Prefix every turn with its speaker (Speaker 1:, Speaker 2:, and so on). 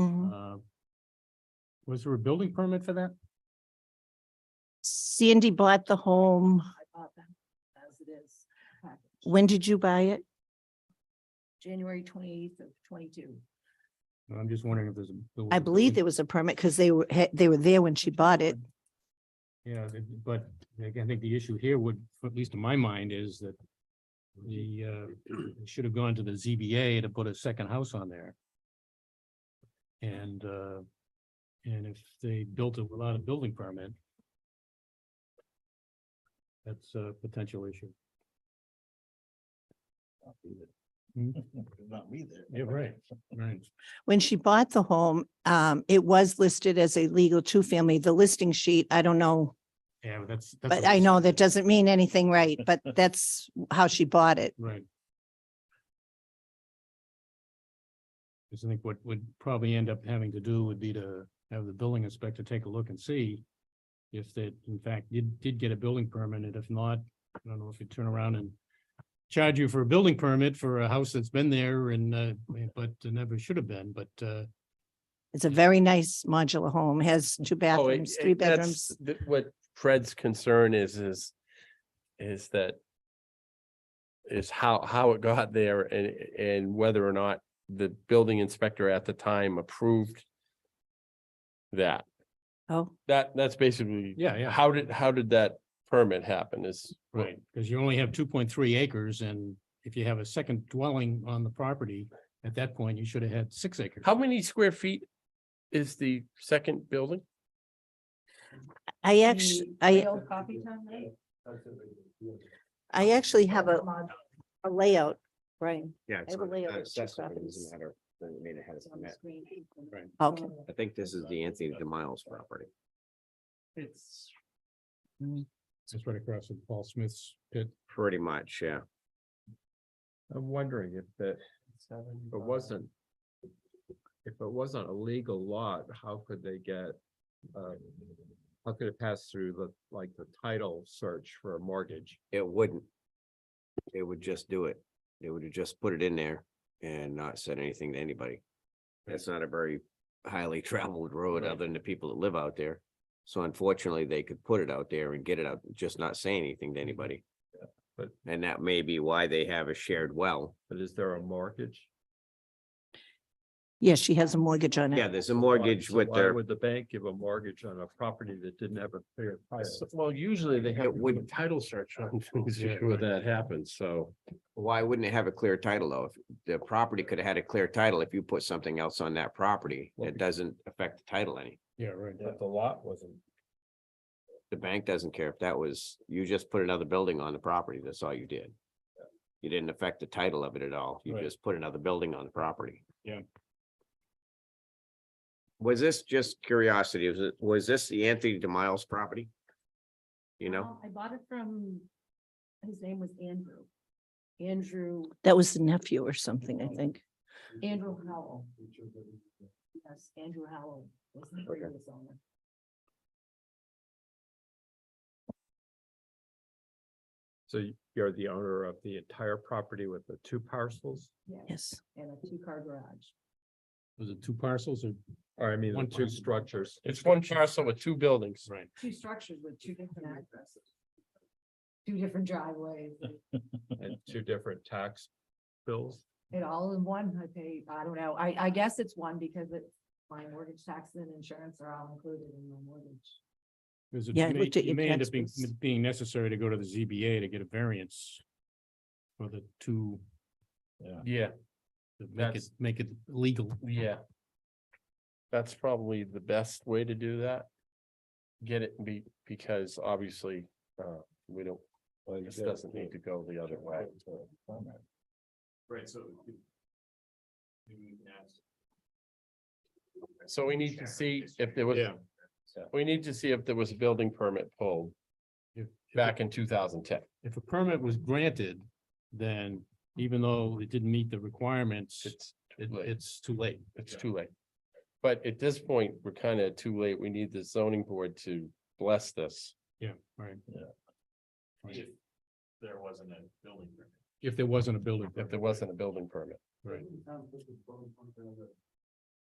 Speaker 1: Mm-hmm.
Speaker 2: Mhm.
Speaker 3: Mm-hmm.
Speaker 4: Uh, Was there a building permit for that?
Speaker 2: Sandy bought the home.
Speaker 3: I bought them as it is. packaged.
Speaker 2: When did you buy it?
Speaker 3: January twenty-eighth of twenty-two.
Speaker 4: I'm just wondering if there's. a- there was
Speaker 2: I
Speaker 4: a
Speaker 2: believe there
Speaker 4: building-
Speaker 2: was a permit because they were, he- they were there when she bought it.
Speaker 4: Yeah, th- but again, I think the issue here would, at least in my mind, is that the, uh, it should have gone to the ZBA to put a second house on there. And, uh, and if they built it without a building permit, that's a potential issue. Hmm?
Speaker 5: Not me there.
Speaker 4: Yeah, right. Right.
Speaker 2: When she bought the home, um, it was listed as a legal two-family. The listing sheet, I don't know.
Speaker 4: Yeah, but that's. that's
Speaker 2: But
Speaker 4: what
Speaker 2: I
Speaker 4: this-
Speaker 2: know that doesn't mean anything, right? But that's how she bought it.
Speaker 4: Right. Because I think what would probably end up having to do would be to have the building inspector take a look and see if that in fact did, did get a building permit, and if not, I don't know if you turn around and charge you for a building permit for a house that's been there and, uh, but never should have been, but, uh,
Speaker 2: It's a very nice modular home, has two
Speaker 1: Oh, it-
Speaker 2: bathrooms,
Speaker 1: it-
Speaker 2: three
Speaker 1: that's
Speaker 2: bedrooms.
Speaker 1: th- What Fred's concern is, is, is that is how, how it got there and, and whether or not the building inspector at the time approved that.
Speaker 2: Oh,
Speaker 1: That, that's basically.
Speaker 4: yeah, yeah,
Speaker 1: How did, how did that permit happen is. what-
Speaker 4: right, because you only have two point three acres, and if you have a second dwelling on the property, at that point, you should have had six acres.
Speaker 1: How many square feet is the second building?
Speaker 2: I actually, I,
Speaker 3: Real Coffee time, right?
Speaker 2: I actually have a, a layout, right?
Speaker 6: Yeah.
Speaker 2: I
Speaker 6: it's
Speaker 2: have a
Speaker 6: not-
Speaker 2: layout
Speaker 6: not
Speaker 2: of two
Speaker 6: accessible, it
Speaker 2: copies.
Speaker 6: doesn't matter that it made it has
Speaker 3: It's
Speaker 6: a
Speaker 3: on the
Speaker 6: permit.
Speaker 3: screen.
Speaker 4: Right.
Speaker 2: Okay.
Speaker 6: I think this is the Anthony DeMiles property.
Speaker 5: It's
Speaker 4: It's right across from Paul Smith's pit.
Speaker 6: Pretty much, yeah.
Speaker 7: I'm wondering if that,
Speaker 5: seven.
Speaker 7: if it wasn't. If it wasn't a legal lot, how could they get, um, how could it pass through the, like, the title search for a mortgage?
Speaker 6: It wouldn't. It would just do it. They would have just put it in there and not said anything to anybody. That's not a very highly traveled road
Speaker 4: Right.
Speaker 6: other than the people that live out there. So unfortunately, they could put it out there and get it out, just not say anything to anybody.
Speaker 7: but-
Speaker 6: And that may be why they have a shared well.
Speaker 7: But is there a mortgage?
Speaker 2: Yeah, she has a mortgage on
Speaker 6: Yeah,
Speaker 2: it.
Speaker 6: there's a
Speaker 7: Why-
Speaker 6: mortgage
Speaker 7: so
Speaker 6: with
Speaker 7: why
Speaker 6: their,
Speaker 7: Would the bank give a mortgage on a property that didn't have a clear title?
Speaker 1: Well, usually they
Speaker 6: have to do a
Speaker 1: title search on things
Speaker 4: Yeah, when right.
Speaker 1: that happens, so.
Speaker 6: why wouldn't it have a clear title though? If The property could have had a clear title if you put something else on that property
Speaker 7: Well,
Speaker 6: that
Speaker 7: be-
Speaker 6: doesn't affect the title any.
Speaker 4: Yeah, right.
Speaker 7: But the lot wasn't.
Speaker 6: The bank doesn't care if that was, you just put another building on the property, that's all you did. You didn't affect the title of it at all, you
Speaker 4: Right.
Speaker 6: just put another building on the property.
Speaker 4: Yeah.
Speaker 6: Was this just curiosity, was it, was this the Anthony DeMiles property? You know,
Speaker 3: Well, I bought it from, his name was Andrew. Andrew,
Speaker 2: That was the nephew or something, I think.
Speaker 3: Andrew Howell. Yes, Andrew Howell was the previous owner.
Speaker 7: So y- you're the owner of the entire property with the two parcels?
Speaker 3: Yes,
Speaker 2: Yes.
Speaker 3: and a two-car garage.
Speaker 4: Was it two parcels or?
Speaker 7: Or I mean, the
Speaker 4: One
Speaker 7: two
Speaker 4: parcel.
Speaker 7: structures?
Speaker 1: It's one parcel with two buildings.
Speaker 4: Right.
Speaker 3: two structures with two different addresses. Two different driveways, and
Speaker 7: And two different tax bills?
Speaker 3: it all in one, I pay, I don't know, I, I guess it's one because it's my mortgage tax and insurance are all included in my mortgage.
Speaker 4: Because it
Speaker 2: Yeah, I
Speaker 4: may,
Speaker 2: looked at
Speaker 4: it
Speaker 2: your
Speaker 4: may end
Speaker 2: tax
Speaker 4: up being,
Speaker 2: base.
Speaker 4: being necessary to go to the ZBA to get a variance for the two,
Speaker 1: Yeah,
Speaker 4: to make it,
Speaker 1: That's-
Speaker 4: make it legal.
Speaker 1: yeah. That's probably the best way to do that. Get it be, because obviously, uh, we don't, this doesn't need to go the other way.
Speaker 4: Right, so.
Speaker 1: So we need to see if there was,
Speaker 4: Yeah.
Speaker 1: we need to see if there was a building permit pulled
Speaker 4: If-
Speaker 1: back in two thousand ten.
Speaker 4: If a permit was granted, then even though it didn't meet the requirements, it,
Speaker 1: It's, too late.
Speaker 4: it's too late.
Speaker 1: it's too late. But at this point, we're kind of too late. We need the zoning board to bless this.
Speaker 4: Yeah, right.
Speaker 1: Yeah.
Speaker 4: Right. If there wasn't a building.
Speaker 1: If
Speaker 4: permit.
Speaker 1: there wasn't a building permit.
Speaker 4: Right.